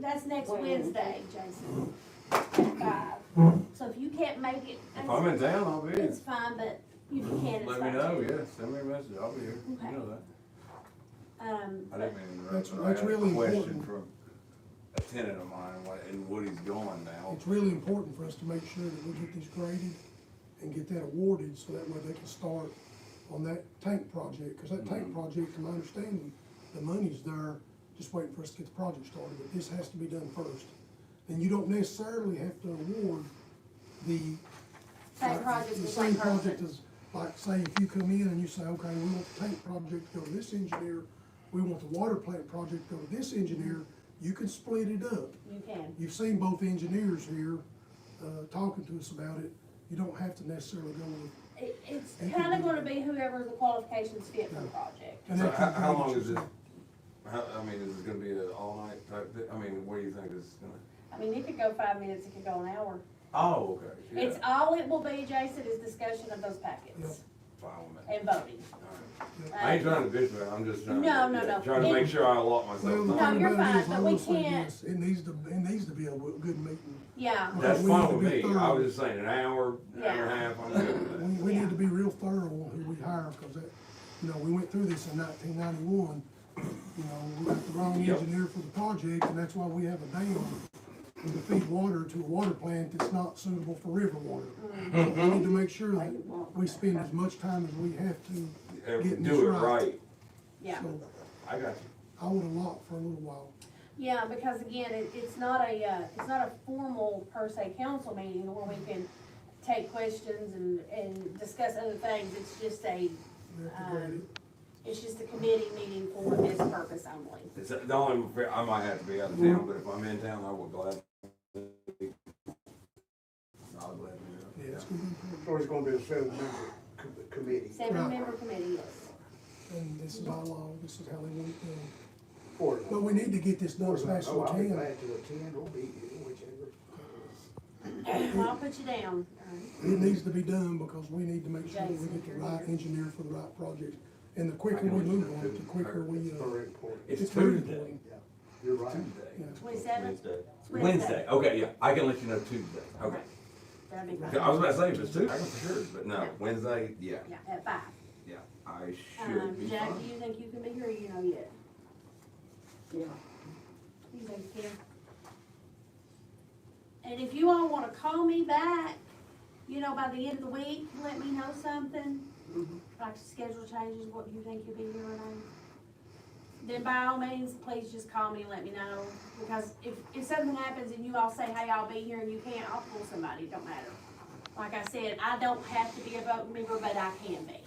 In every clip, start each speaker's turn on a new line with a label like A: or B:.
A: That's next
B: When?
A: Wednesday, Jason, at five. So if you can't make it,
C: If I'm in town, I'll be here.
A: it's fine, but if you can, it's
C: Let me
A: fine.
C: know, yeah, send me a message, I'll be here, you know that.
A: Um,
C: I didn't mean to interrupt,
D: That's-
C: but I
D: that's
C: had a
D: really
C: question
D: important.
C: from a tenant of mine, what- and what he's going now.
D: It's really important for us to make sure that we get this graded and get that awarded, so that way they can start on that tank project, because that
E: Mm-hmm.
D: tank project, from my understanding, the money's there, just waiting for us to get the project started, but this has to be done first. And you don't necessarily have to award the.
A: Same project
D: the
A: with
D: same
A: one
D: project
A: person.
D: as, like, say, if you come in and you say, okay, we want the tank project to go to this engineer, we want the water plant project to go to this engineer, you can split it up.
A: you can.
D: You've seen both engineers here, uh, talking to us about it. You don't have to necessarily go with.
A: It, it's
D: Thank you.
A: kinda gonna be whoever the qualifications fit for the project.
D: and
C: So
D: that
C: how,
D: can
C: how
D: be-
C: long is this, how, I mean, is this gonna be an all-night type, thi- I mean, what do you think this is gonna?
A: I mean, it could go five minutes, it could go an hour.
C: Oh, okay,
A: It's,
C: yeah,
A: all it will be, Jason, is discussion of those packets
C: fine with me.
A: and voting.
C: All right. I ain't
A: Um,
C: trying to bitch, but I'm just trying to.
A: No, no, no.
C: Trying to make sure I allot
D: Well,
C: myself.
D: the
A: No,
C: time.
D: thing
A: you're
D: about it
A: fine,
D: is, I
A: but we
D: will say
A: can't-
D: this, It needs to, it needs to be a w- good meeting.
A: Yeah,
C: That's
D: we need
C: fine
D: to
C: with
D: be
C: me, I
D: thorough.
C: was just saying, an hour, an hour and a
A: Yeah.
C: half, I'm good with
D: We,
C: that.
D: we
A: Yeah.
D: need to be real thorough on who we hire, because that, you know, we went through this in nineteen ninety-one. You know, we got the wrong
C: Yep.
D: engineer for the project, and that's why we have a dam to feed water to a water plant that's not suitable for river water. So We need to make sure that we spend as much time as we have to
C: If we
D: getting this
C: Do it right,
A: yeah.
D: So
C: I got you.
D: I would allot for a little while.
A: Yeah, because again, it, it's not a, uh, it's not a formal per se council meeting where we can take questions and, and discuss other things. It's just a,
D: We have to grade
A: um,
D: it.
A: it's just a committee meeting for this purpose only.
C: It's the only, fe- I might have to be out of town, but if I'm in town, I will gladly. I'll gladly. do it.
D: Yeah, it's gonna be important.
E: So it's gonna be a seven-member com- committee
A: Seven member committee, yes.
D: And this is by law, this is how they want it done.
E: for
D: But we need to get this done as fast as
E: Oh,
D: we
E: I'll be
D: can.
E: glad to attend or be here, whichever.
A: Well, I'll put you down. Uh,
D: It needs to be done because we need to make sure that we
A: Jason,
D: get the
A: you're
D: right
A: here.
D: engineer for the right project. And the quicker
C: I know
D: we
C: it's
D: move
C: not
D: on it, the
C: too
D: quicker
C: hard.
D: we,
E: It's
D: uh,
E: very important,
C: It's
D: very
C: Tuesday.
D: important.
E: yeah, you're right.
D: Yeah.
C: Tuesday.
A: Twenty-seven?
F: Wednesday.
C: Wednesday, okay, yeah, I can let you know Tuesday, okay.
A: That'd be
C: I
A: great.
C: was about to say, if it's Tuesday, I can for sure, but no, Wednesday, yeah,
A: Yeah, at five.
C: yeah, I
A: Um,
C: should be
A: Jack, do
C: fine.
A: you think you can be here or you know yet?
B: Yeah.
A: You think you can? And if you all wanna call me back, you know, by the end of the week, let me know something,
B: Mhm.
A: like schedule changes, what do you think you'll be here or not? Then by all means, please just call me and let me know, because if, if something happens and you all say, hey, I'll be here and you can't, I'll pull somebody, it don't matter. Like I said, I don't have to be a vote member, but I can be.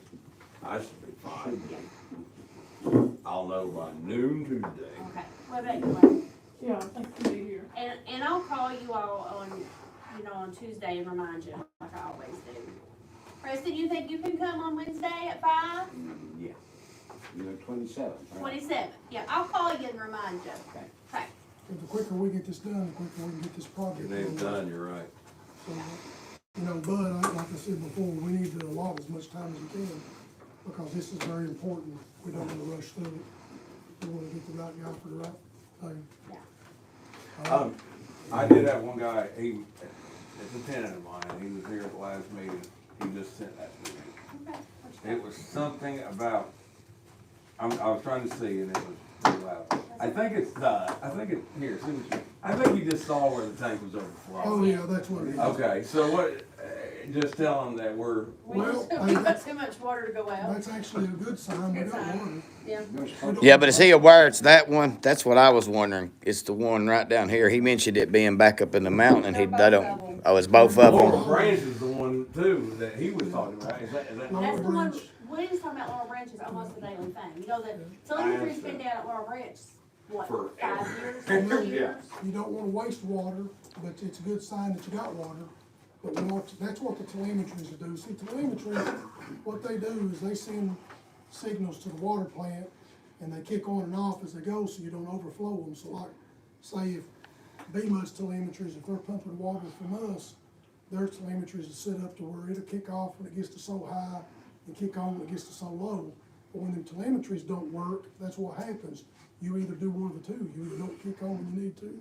C: I should be fine. I'll know by noon Tuesday.
A: Okay, what about you, Lane?
B: Yeah, I think we'll be here.
A: And, and I'll call you all on, you know, on Tuesday and remind you, like I always do. Preston, you think you can come on Wednesday at five?
F: Mm, Yeah. You know, twenty-seven.
A: Twenty-seven, yeah, I'll call you and remind you.
F: Okay.
A: Okay,
D: and the quicker we get this done, the quicker we can get this
C: Your
D: project.
C: name's
D: done.
C: done, you're right.
D: So, You know, but I- like I said before, we need to allot as much time as we can because this is very important. We don't want to rush through it. We want to get the right guy for the right thing.
A: yeah.
C: Um, I did have one guy, he, it's a tenant of mine, he was here at the last meeting, he just sent that to me.
A: Okay. what you
C: It
A: got?
C: was something about, I'm, I was trying to see and it was pretty loud. I think it's, uh, I think it, here, see what you, I think you just saw where the tank was
D: Oh,
C: overflowing.
D: yeah, that's what it is.
C: Okay, so what, uh, just tell them that we're,
A: We just,
D: Well,
A: we
D: I-
A: got too much water to go out,
D: That's actually a good sign. We
A: Good
D: don't
A: sign.
D: want it.
A: yeah.
F: Yeah, but is he aware it's that one? That's what I was wondering. It's the one right down here. He mentioned it being back up in the mountain and he, they don't, oh, it's both of
C: Laurel
F: them.
C: Branch is the one too that he was talking about, is that, is that?
A: That's the one,
D: Branch.
A: William's talking about Laurel Branch is almost a daily thing, you know, the,
C: I
A: Sylvan Creek's been
C: understand.
A: down at Laurel Branch, what, five
C: Forever.
A: years, four
C: Yeah.
A: years?
D: You don't wanna waste water, but it's a good sign that you got water. But we want- that's what the telemetries do. See, telemetry, what they do is they send signals to the water plant and they kick on and off as they go so you don't overflow them. So like, say if BMUS telemetries, if they're pumping water from us, their telemetries is set up to where it'll kick off when it gets to so high and kick on when it gets to so low. But when them telemetries don't work, that's what happens. You either do one of the two. You either don't kick on when you need to